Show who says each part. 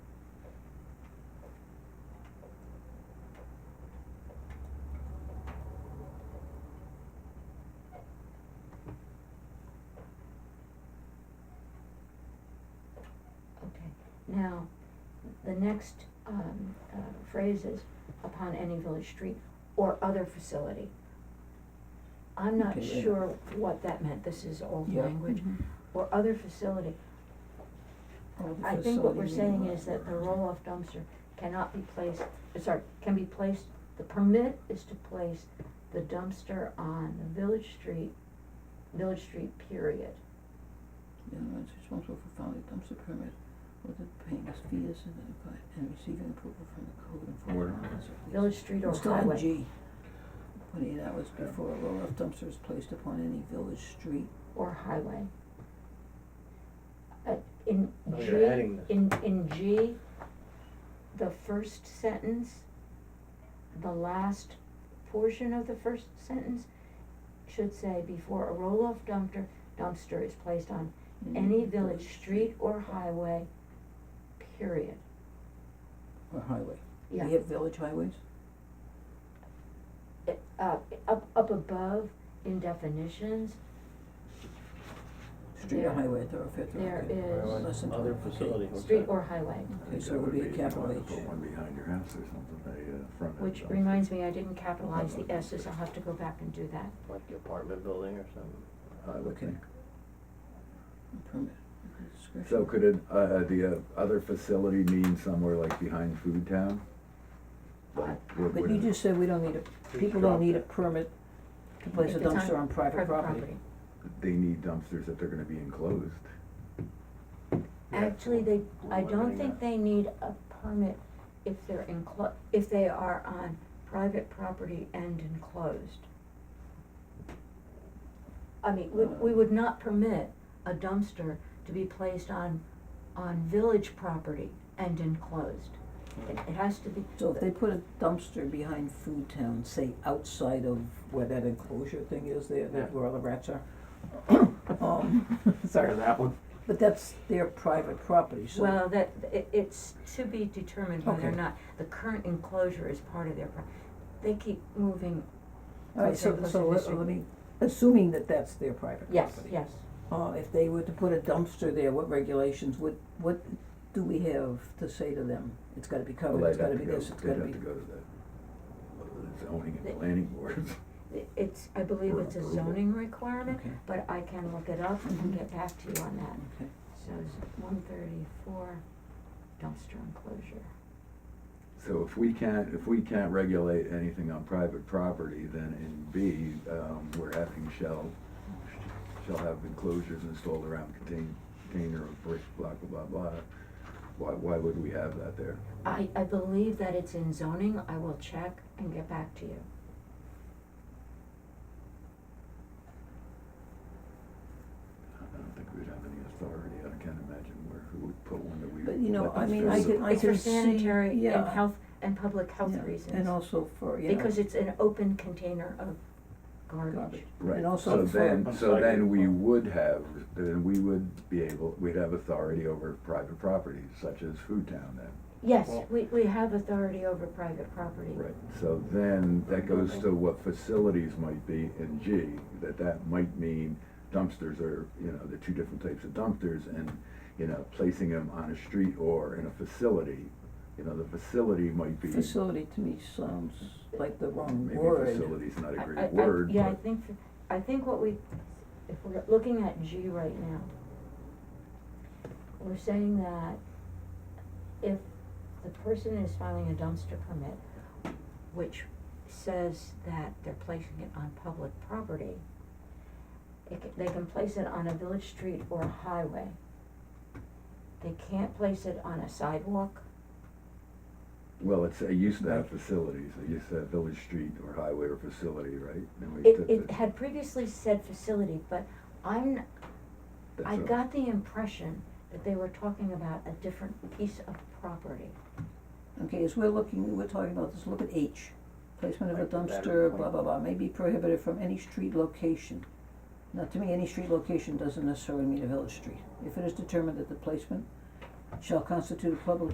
Speaker 1: Now, the next, um, uh, phrase is upon any village street or other facility. I'm not
Speaker 2: Okay, yeah.
Speaker 1: sure what that meant, this is old
Speaker 2: Yeah. Mm-hmm.
Speaker 1: language, or other facility. I think what we're saying is that the roll-off dumpster cannot be placed, uh, sorry, can be placed, the permit is to place the dumpster on the village street, village street period.
Speaker 2: The owner is responsible for filing a dumpster permit with the paying his fees and then apply- and receiving approval from the code
Speaker 3: Where?
Speaker 2: enforcement officer. please.
Speaker 1: Village street or
Speaker 2: It's still in
Speaker 1: highway,
Speaker 2: G. Twenty-eight hours before a roll-off dumpster is placed upon any village street.
Speaker 1: or highway. Uh, in
Speaker 4: No,
Speaker 1: G,
Speaker 4: Oh, you're adding this.
Speaker 1: in, in G, the first sentence, the last portion of the first sentence should say, before a roll-off dumpster, dumpster is placed on
Speaker 2: Mm-hmm.
Speaker 1: Any village, street or highway, period.
Speaker 2: Or highway.
Speaker 1: Yeah,
Speaker 2: We have village highways?
Speaker 1: it, uh, up, up above in definitions,
Speaker 2: Street or
Speaker 1: There-
Speaker 2: highway, thoroughfare, thoroughfare.
Speaker 1: there is
Speaker 2: Less than
Speaker 4: Other
Speaker 2: 12, okay.
Speaker 4: facility, okay.
Speaker 1: street or highway.
Speaker 2: Okay, so it would be a capital
Speaker 3: You might
Speaker 2: H.
Speaker 3: put one behind your house or something, a uh, front end.
Speaker 1: Which
Speaker 3: dumpster.
Speaker 1: reminds me, I didn't capitalize the S's, I'll have to go back and do that.
Speaker 4: Like the apartment building or something.
Speaker 3: I would
Speaker 2: Okay.
Speaker 3: think.
Speaker 2: A Permit, okay, discretion.
Speaker 3: So could it, uh, uh, the uh, other facility mean somewhere like behind Food Town? Like, what
Speaker 2: But
Speaker 3: would
Speaker 2: you
Speaker 3: it-
Speaker 2: just said we don't need a, people don't need a permit to place a
Speaker 1: If it's
Speaker 2: dumpster on private property.
Speaker 3: They need dumpsters that they're gonna be enclosed.
Speaker 1: Actually, they, I don't think they need a permit if they're enclo- if they are on private property and enclosed. I mean, we, we would not permit a dumpster to be placed on, on village property and enclosed. It, it has to be.
Speaker 2: So if they put a dumpster behind Food Town, say outside of where that enclosure thing is there, that
Speaker 4: Yeah.
Speaker 2: where all the rats are. Um,
Speaker 4: Sorry,
Speaker 2: sorry,
Speaker 4: that one.
Speaker 2: but that's their private property, so.
Speaker 1: Well, that, it, it's to be determined when they're
Speaker 2: Okay.
Speaker 1: not, the current enclosure is part of their pro- they keep moving,
Speaker 2: Alright, so,
Speaker 1: okay,
Speaker 2: so uh,
Speaker 1: let's
Speaker 2: let,
Speaker 1: do
Speaker 2: let me, assuming that that's their private
Speaker 1: yes,
Speaker 2: property.
Speaker 1: yes.
Speaker 2: Uh, if they were to put a dumpster there, what regulations, what, what do we have to say to them? It's gotta be
Speaker 3: Well,
Speaker 2: covered, it's
Speaker 3: they'd have
Speaker 2: gotta
Speaker 3: to
Speaker 2: be
Speaker 3: go-
Speaker 2: this, it's gotta be.
Speaker 3: They'd have to go to the zoning
Speaker 1: They-
Speaker 3: and planning boards.
Speaker 1: It- It's, I believe it's a
Speaker 3: Approval.
Speaker 1: zoning requirement,
Speaker 2: Okay.
Speaker 1: but I can look it up and
Speaker 2: Mhm.
Speaker 1: get back to you on that.
Speaker 2: Okay.
Speaker 1: So it's one thirty-four dumpster enclosure.
Speaker 3: So if we can't, if we can't regulate anything on private property, then in B, um, we're having shall, shall have enclosures installed around contain, container of brick, blah, blah, blah, blah. Why, why would we have that there?
Speaker 1: I, I believe that it's in zoning, I will check and get back to you.
Speaker 3: I don't think we'd have any authority, I can't imagine where, who would put one that we.
Speaker 2: But, you know,
Speaker 3: let
Speaker 2: I
Speaker 3: them
Speaker 2: mean, I
Speaker 3: serve.
Speaker 2: can, I
Speaker 1: It's for
Speaker 2: can see, yeah.
Speaker 1: sanitary and health, and public health
Speaker 2: yeah,
Speaker 1: reasons.
Speaker 2: And also for, you know.
Speaker 1: Because it's an open container of garbage.
Speaker 2: Garbage.
Speaker 3: Right,
Speaker 2: And also
Speaker 3: so
Speaker 2: for-
Speaker 3: then,
Speaker 4: I'm
Speaker 3: so
Speaker 4: sorry.
Speaker 3: then we would have, then we would be able, we'd have authority over private property, such as Food Town then.
Speaker 1: Yes,
Speaker 4: Well-
Speaker 1: we, we have authority over private property.
Speaker 3: Right, so then that goes to what facilities might be in G, that that might mean dumpsters are, you know, the two different types of dumpsters and, you know, placing them on a street or in a facility, you know, the facility might be, maybe
Speaker 2: Facility to me sounds like the wrong word.
Speaker 3: facility's not a
Speaker 1: I- I- I-
Speaker 3: great word,
Speaker 1: Yeah, I
Speaker 3: but
Speaker 1: think, f- I think what we, if we're looking at G right now, we're saying that if the person is filing a dumpster permit, which says that they're placing it on public property, it ca- they can place it on a village street or a highway. They can't place it on a sidewalk,
Speaker 3: well, it's, it used to have
Speaker 2: Right.
Speaker 3: facilities, it used to have village street or highway or facility, right? Then we
Speaker 1: It,
Speaker 3: took
Speaker 1: it
Speaker 3: the-
Speaker 1: had previously said facility, but I'm,
Speaker 3: that's
Speaker 1: I
Speaker 3: a-
Speaker 1: got the impression that they were talking about a different piece of property.
Speaker 2: Okay, as we're looking, we're talking about this, look at H, placement of a
Speaker 4: Like that
Speaker 2: dumpster,
Speaker 4: point.
Speaker 2: blah, blah, blah, may be prohibited from any street location. Now, to me, any street location doesn't necessarily mean a village street. If it is determined that the placement shall constitute a public